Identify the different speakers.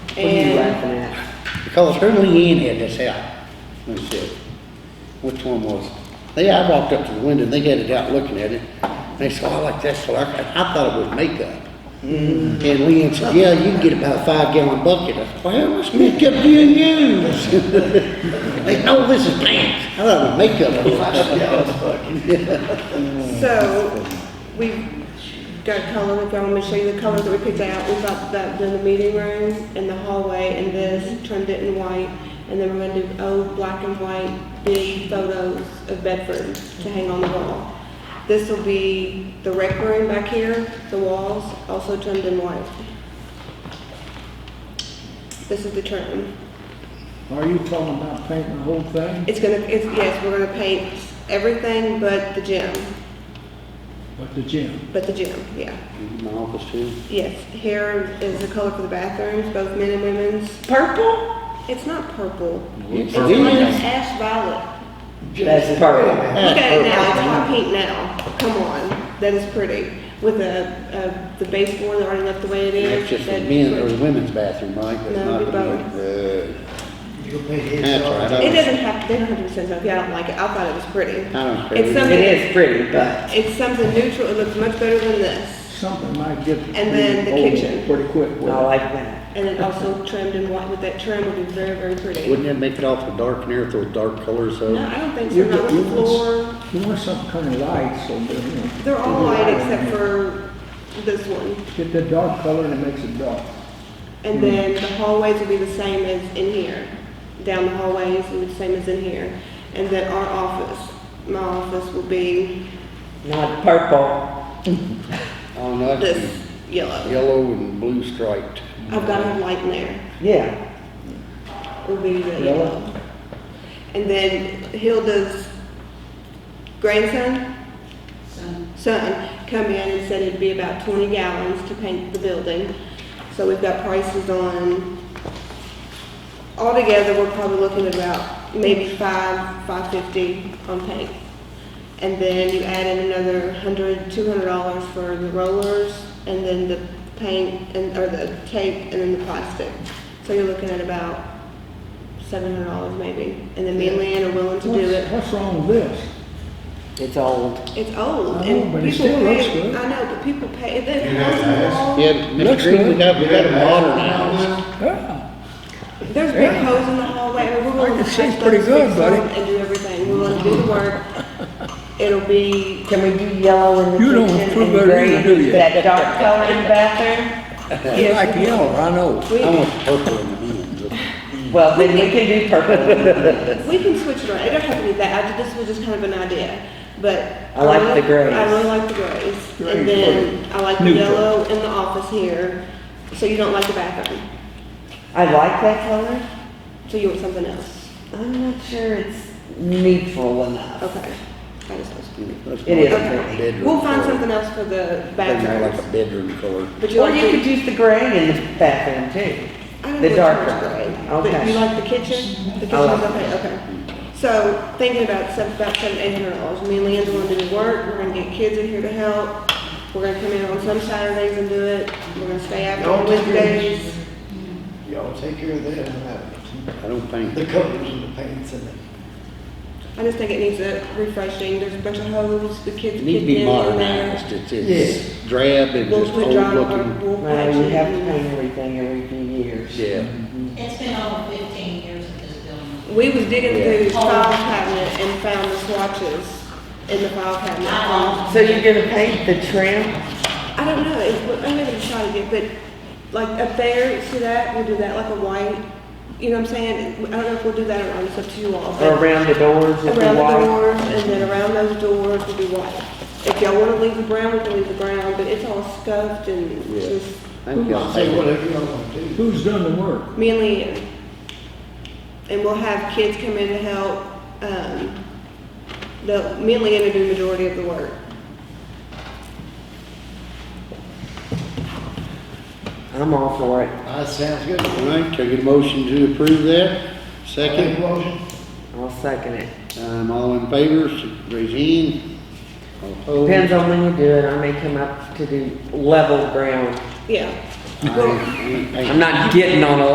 Speaker 1: Because her Leanne had this out, and said, which one was it? They, I walked up to the window, and they had it out looking at it, and they said, oh, I like that, so I, I thought it was makeup. And
Speaker 2: Mm-hmm.
Speaker 1: Leanne said, yeah, you can get about a five gallon bucket. I said, well, what's makeup do you use? They, no, this is pants, I thought it was makeup.
Speaker 2: So, we've got color, if y'all want me to show you the colors that we picked out, we got that in the meeting room, in the hallway, and this, trimmed it in white, and then we're gonna do old black and white big photos of Bedford to hang on the wall. This will be the rec room back here, the walls, also trimmed in white. This is the trim.
Speaker 3: Are you talking about painting the whole thing?
Speaker 2: It's gonna, it's, yes, we're gonna paint everything but the gym,
Speaker 3: With the gym?
Speaker 2: but the gym, yeah.
Speaker 1: My office too.
Speaker 2: Yes, here is the color for the bathrooms, both men and women's.
Speaker 4: Purple?
Speaker 2: It's not purple.
Speaker 1: Yes,
Speaker 2: It's
Speaker 1: it is.
Speaker 2: ash violet.
Speaker 4: That's purple.
Speaker 2: Look at it now, it's hot pink now. Come on, that is pretty. With a, a, the baseboard that already left the way it is.
Speaker 1: That's just the
Speaker 2: that'd be
Speaker 1: men or
Speaker 2: pretty.
Speaker 1: the women's bathroom, right? That's
Speaker 2: No,
Speaker 1: not
Speaker 2: we
Speaker 1: the
Speaker 2: both.
Speaker 1: men-
Speaker 5: You'll pay
Speaker 1: uh,
Speaker 5: his.
Speaker 1: That's right. I
Speaker 2: It
Speaker 1: was-
Speaker 2: doesn't have, they don't have to be sensitive. Yeah, I don't like it. I thought it was pretty.
Speaker 1: I don't care.
Speaker 2: It's
Speaker 4: It
Speaker 2: something,
Speaker 4: is pretty, but
Speaker 2: it's something neutral. It looks much better than this.
Speaker 3: Something might get
Speaker 2: then the
Speaker 3: pretty old
Speaker 2: kitchen.
Speaker 3: pretty quick. with
Speaker 4: I
Speaker 3: it.
Speaker 4: like that.
Speaker 2: And it also trimmed in white with that trim would be very, very pretty.
Speaker 1: Wouldn't that make it awful dark in there with those dark colors
Speaker 2: No,
Speaker 1: though?
Speaker 2: I don't think so.
Speaker 3: You
Speaker 2: Not
Speaker 3: want-
Speaker 2: with
Speaker 3: you
Speaker 2: the
Speaker 3: want-
Speaker 2: floor.
Speaker 3: You want some kind of light, so, that, you know.
Speaker 2: They're all
Speaker 3: the
Speaker 2: white
Speaker 3: light
Speaker 2: except
Speaker 3: on
Speaker 2: for this one.
Speaker 3: it. Get the dark color and it makes it dark.
Speaker 2: And then the hallways will be the same as in here. Down the hallways will be the same as in here. And then our office, my office will be
Speaker 4: Not purple.
Speaker 1: Oh, no, that's
Speaker 2: this yellow.
Speaker 1: yellow and blue striped.
Speaker 2: I've got to have light in there.
Speaker 4: Yeah.
Speaker 2: Will be the yellow. And then Hilda's grandson, son, come in and said it'd be about 20 gallons to paint the building. So we've got prices on, altogether, we're probably looking at about maybe five, 550 on paint. And then you add in another 100, 200 dollars for the rollers and then the paint and, or the tape and then the plastic. So you're looking at about 700 dollars maybe. And then me and Leanne are willing to do
Speaker 3: What's-
Speaker 2: it.
Speaker 3: What's wrong with this?
Speaker 4: It's old.
Speaker 2: It's old,
Speaker 3: I know,
Speaker 2: and
Speaker 3: Oh, but it
Speaker 2: people
Speaker 3: still looks
Speaker 2: pay,
Speaker 3: good.
Speaker 2: I know, but people pay, it
Speaker 5: You have to ask.
Speaker 2: there's,
Speaker 1: Yeah, Mr.
Speaker 3: Looks
Speaker 1: Green, we
Speaker 3: good.
Speaker 1: got, we got a modern house.
Speaker 3: Yeah,
Speaker 2: there's big holes in the hallway, and we're
Speaker 3: I
Speaker 2: gonna
Speaker 3: can see
Speaker 2: patch
Speaker 3: pretty
Speaker 2: those,
Speaker 3: good,
Speaker 2: fix them,
Speaker 3: buddy.
Speaker 2: and do everything, we're gonna do the work. It'll be,
Speaker 4: Can we do yellow in the
Speaker 3: You don't
Speaker 4: kitchen
Speaker 3: approve
Speaker 4: and
Speaker 3: of it either,
Speaker 4: green?
Speaker 3: do you?
Speaker 4: That dark color in the bathroom?
Speaker 3: you like yellow, I know.
Speaker 1: I
Speaker 2: we,
Speaker 1: want purple in the end.
Speaker 4: Well, then we can do purple.
Speaker 2: we can switch it around, it don't have to be that, I did, this was just kind of an idea, but.
Speaker 4: I like the grays.
Speaker 2: gray. I really like the grays,
Speaker 3: Grays,
Speaker 2: and then I like the
Speaker 3: Neutral.
Speaker 2: yellow in the office here, so you don't like the bathroom,
Speaker 4: I like that color.
Speaker 2: so you want something else,
Speaker 4: I'm not sure it's neutral enough.
Speaker 2: okay. I just was-
Speaker 1: That's
Speaker 4: It is
Speaker 1: more like a
Speaker 4: pretty.
Speaker 1: bedroom
Speaker 2: We'll find
Speaker 1: color.
Speaker 2: something else for the
Speaker 1: That's more like
Speaker 2: bathrooms.
Speaker 1: a bedroom color.
Speaker 2: But you
Speaker 4: Or
Speaker 2: like
Speaker 4: you could
Speaker 2: the,
Speaker 4: use the gray in the bathroom too.
Speaker 2: I don't know
Speaker 4: The
Speaker 2: which
Speaker 4: darker.
Speaker 2: one's gray. But
Speaker 4: Okay.
Speaker 2: you like the kitchen? The kitchen's
Speaker 4: like
Speaker 2: okay, okay. So thinking about seven, about seven, eight hundred dollars. Me and Leanne's gonna do the work, we're gonna get kids in here to help. We're gonna come in on some Saturdays and do it. We're gonna stay out
Speaker 5: Y'all
Speaker 2: on
Speaker 5: take care of
Speaker 2: Wednesdays.
Speaker 5: Y'all take care of that, and that.
Speaker 1: I don't think,
Speaker 5: the colors and the paints and the.
Speaker 2: I just think it needs a refreshing. There's a bunch of holes, the kids
Speaker 1: it needs
Speaker 2: kicking
Speaker 1: to be
Speaker 2: in on there.
Speaker 1: modernized. It's, it's drab and
Speaker 2: We'll
Speaker 1: just
Speaker 2: put
Speaker 1: old
Speaker 2: dry on,
Speaker 1: looking.
Speaker 2: we'll
Speaker 4: Well,
Speaker 2: patch
Speaker 4: you have to
Speaker 2: it.
Speaker 4: paint everything every few years.
Speaker 1: Yeah.
Speaker 6: It's been over fifteen years at this building.
Speaker 2: We was digging
Speaker 1: Yeah.
Speaker 2: through the file cabinet and found the swatches in the file cabinet.
Speaker 6: I
Speaker 4: So you're gonna paint the trim?
Speaker 2: I don't know, it's, I haven't shot it yet, but like up there, see that, we'll do that like a white, you know what I'm saying? I don't know if we'll do that or not, it's up to you all.
Speaker 4: Or
Speaker 2: but
Speaker 4: around the doors if you
Speaker 2: Around the
Speaker 4: want?
Speaker 2: doors, and then around those doors will be white. If y'all wanna leave the brown, we can leave the brown, but it's all scuffed and
Speaker 1: Yeah.
Speaker 2: just,
Speaker 1: I think y'all
Speaker 5: Say
Speaker 1: think-
Speaker 5: whatever y'all want to do.
Speaker 3: Who's done the work?
Speaker 2: me and Leanne. And we'll have kids come in to help, um, the, me and Leanne will do the majority of the work.
Speaker 4: I'm all for it.
Speaker 5: That sounds good.
Speaker 1: All right, can I get a motion to approve that? Second?
Speaker 5: Make a motion.
Speaker 4: I'll second it.
Speaker 1: Um, all in favor, raise your hand. All
Speaker 4: Depends
Speaker 1: opposed?
Speaker 4: on when you do it, I may come up to do level ground.
Speaker 2: Yeah.
Speaker 1: Aye. Aye.
Speaker 4: I'm not getting on a